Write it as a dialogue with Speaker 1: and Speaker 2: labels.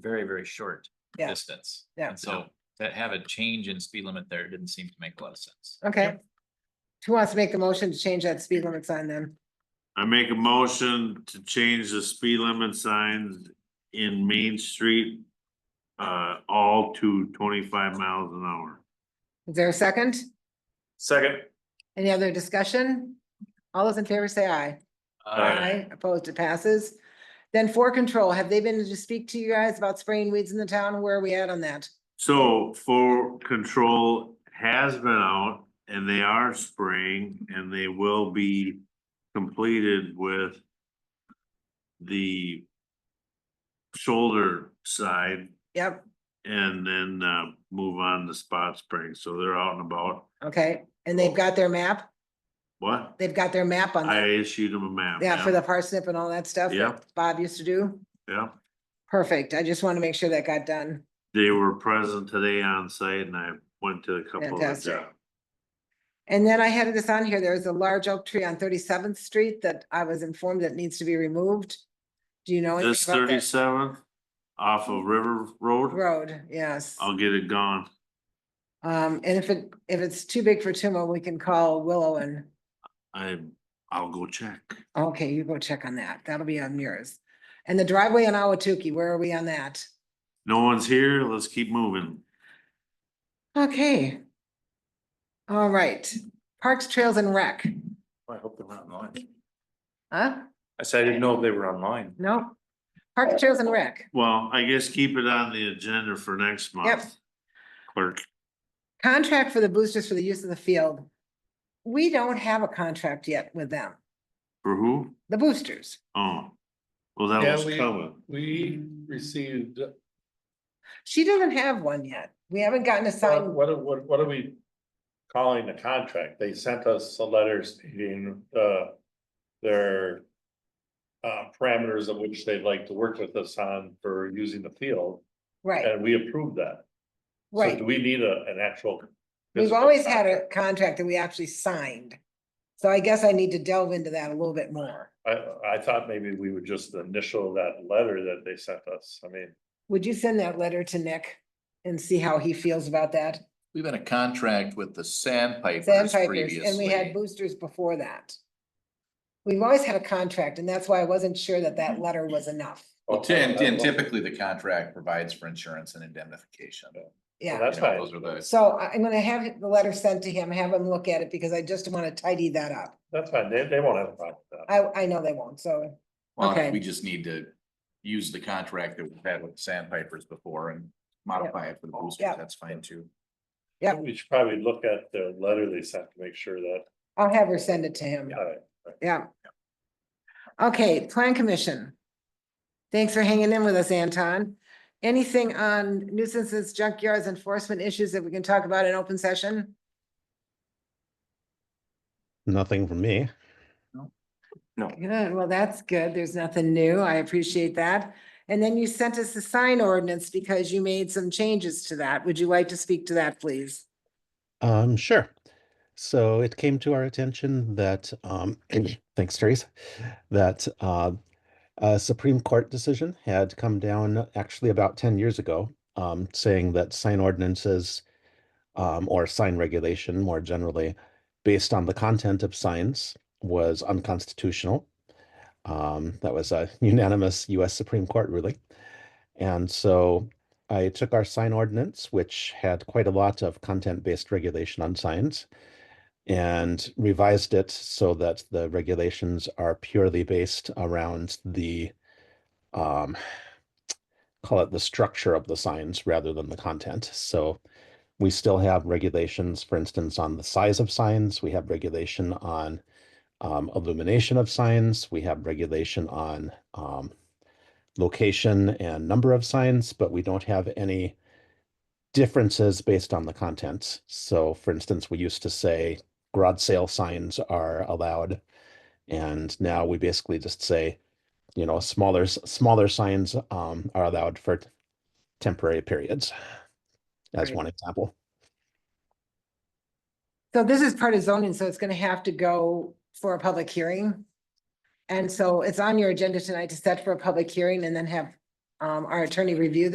Speaker 1: very, very short
Speaker 2: Yeah.
Speaker 1: distance.
Speaker 2: Yeah.
Speaker 1: And so that have a change in speed limit there didn't seem to make a lot of sense.
Speaker 2: Okay. Who wants to make the motion to change that speed limit sign then?
Speaker 3: I make a motion to change the speed limit signs in Main Street. Uh, all to twenty-five miles an hour.
Speaker 2: Is there a second?
Speaker 3: Second.
Speaker 2: Any other discussion? All those in favor say aye.
Speaker 1: Uh,
Speaker 3: Aye.
Speaker 2: Opposed, it passes. Then for control, have they been to speak to you guys about spraying weeds in the town? Where are we at on that?
Speaker 3: So for control has been out and they are spraying and they will be completed with. The. Shoulder side
Speaker 2: Yep,
Speaker 3: and then uh move on to spot spraying, so they're out and about,
Speaker 2: okay. And they've got their map?
Speaker 3: what?
Speaker 2: They've got their map on,
Speaker 3: I
Speaker 2: that.
Speaker 3: issued them a map.
Speaker 2: yeah, for the parsnip and all that stuff
Speaker 3: Yep.
Speaker 2: that Bob used to do?
Speaker 3: Yeah,
Speaker 2: Perfect. I just want to make sure that got done.
Speaker 3: they were present today on site and I went to a couple of
Speaker 2: Fantastic.
Speaker 3: jobs.
Speaker 2: And then I had this on here, there's a large oak tree on Thirty-seventh Street that I was informed that needs to be removed. Do you know
Speaker 3: This
Speaker 2: anything about that
Speaker 3: thirty-seventh off of River Road,
Speaker 2: road? Yes.
Speaker 3: I'll get it gone.
Speaker 2: Um, and if it, if it's too big for Tuma, we can call Willow and,
Speaker 3: I, I'll go check.
Speaker 2: okay, you go check on that. That'll be on yours. And the driveway on Awatuki, where are we on that?
Speaker 3: No one's here, let's keep moving.
Speaker 2: Okay. All right, Parks, Trails and Rec,
Speaker 4: I hope they're not online.
Speaker 2: huh?
Speaker 4: I said, I didn't know if they were online.
Speaker 2: No? Parks, Trails and Rec.
Speaker 3: Well, I guess keep it on the agenda for next month. Clerk,
Speaker 2: Contract for the boosters for the use of the field. We don't have a contract yet with them,
Speaker 3: for who?
Speaker 2: the boosters.
Speaker 3: Oh, well, that
Speaker 5: Yeah,
Speaker 3: was
Speaker 5: we-
Speaker 3: coming.
Speaker 5: We received,
Speaker 2: She doesn't have one yet. We haven't gotten a
Speaker 5: what,
Speaker 2: sign.
Speaker 5: what, what- what are we calling the contract? They sent us a letter stating, uh, their uh, parameters of which they'd like to work with us on for using the field,
Speaker 2: Right,
Speaker 5: and we approved that. So
Speaker 2: right.
Speaker 5: do we need a, an actual?
Speaker 2: We've
Speaker 5: physical
Speaker 2: always had a
Speaker 5: contract?
Speaker 2: contract that we actually signed. So I guess I need to delve into that a little bit more.
Speaker 5: I, I thought maybe we would just initial that letter that they sent us. I mean,
Speaker 2: Would you send that letter to Nick and see how he feels about that?
Speaker 4: We've been a contract with the sandpipers
Speaker 2: Sandpipers,
Speaker 4: previously.
Speaker 2: and we had boosters before that. We've always had a contract and that's why I wasn't sure that that letter was enough.
Speaker 4: Well, ten, ten, typically the contract provides for insurance and indemnification. You
Speaker 2: Yeah.
Speaker 5: That's
Speaker 4: know,
Speaker 5: fine.
Speaker 4: Those are the,
Speaker 2: So I- I'm gonna have the letter sent to him, have him look at it, because I just wanna tidy that up.
Speaker 5: That's fine. They, they won't have a problem with that.
Speaker 2: I, I know they won't, so, Okay.
Speaker 4: well, we just need to use the contract that we've had with the sandpipers before and modify it for the boosters.
Speaker 2: Yep.
Speaker 4: That's fine too.
Speaker 2: yeah.
Speaker 5: We should probably look at the letter they sent to make sure that, uh,
Speaker 2: I'll have her send it to him,
Speaker 5: all right.
Speaker 2: yeah. Okay, plan commission. Thanks for hanging in with us, Anton. Anything on nuisances, junkyards, enforcement issues that we can talk about in open session?
Speaker 6: Nothing from me.
Speaker 2: Good, well, that's good. There's nothing new. I appreciate that. And then you sent us the sign ordinance because you made some changes to that. Would you like to speak to that, please?
Speaker 6: Um, sure. So it came to our attention that, um, thanks, Therese, that uh, a Supreme Court decision had come down actually about 10 years ago, um, saying that sign ordinances um, or sign regulation more generally, based on the content of signs, was unconstitutional. Um, that was a unanimous US Supreme Court ruling. And so I took our sign ordinance, which had quite a lot of content based regulation on signs, and revised it so that the regulations are purely based around the um, call it the structure of the signs rather than the content. So we still have regulations, for instance, on the size of signs, we have regulation on um, illumination of signs, we have regulation on um, location and number of signs, but we don't have any differences based on the content. So for instance, we used to say garage sale signs are allowed. And now we basically just say, you know, smaller, s- smaller signs um, are allowed for t- temporary periods. As
Speaker 2: Right.
Speaker 6: one example.
Speaker 2: So this is part of zoning, so it's gonna have to go for a public hearing. And so it's on your agenda tonight to set for a public hearing and then have um our attorney review this.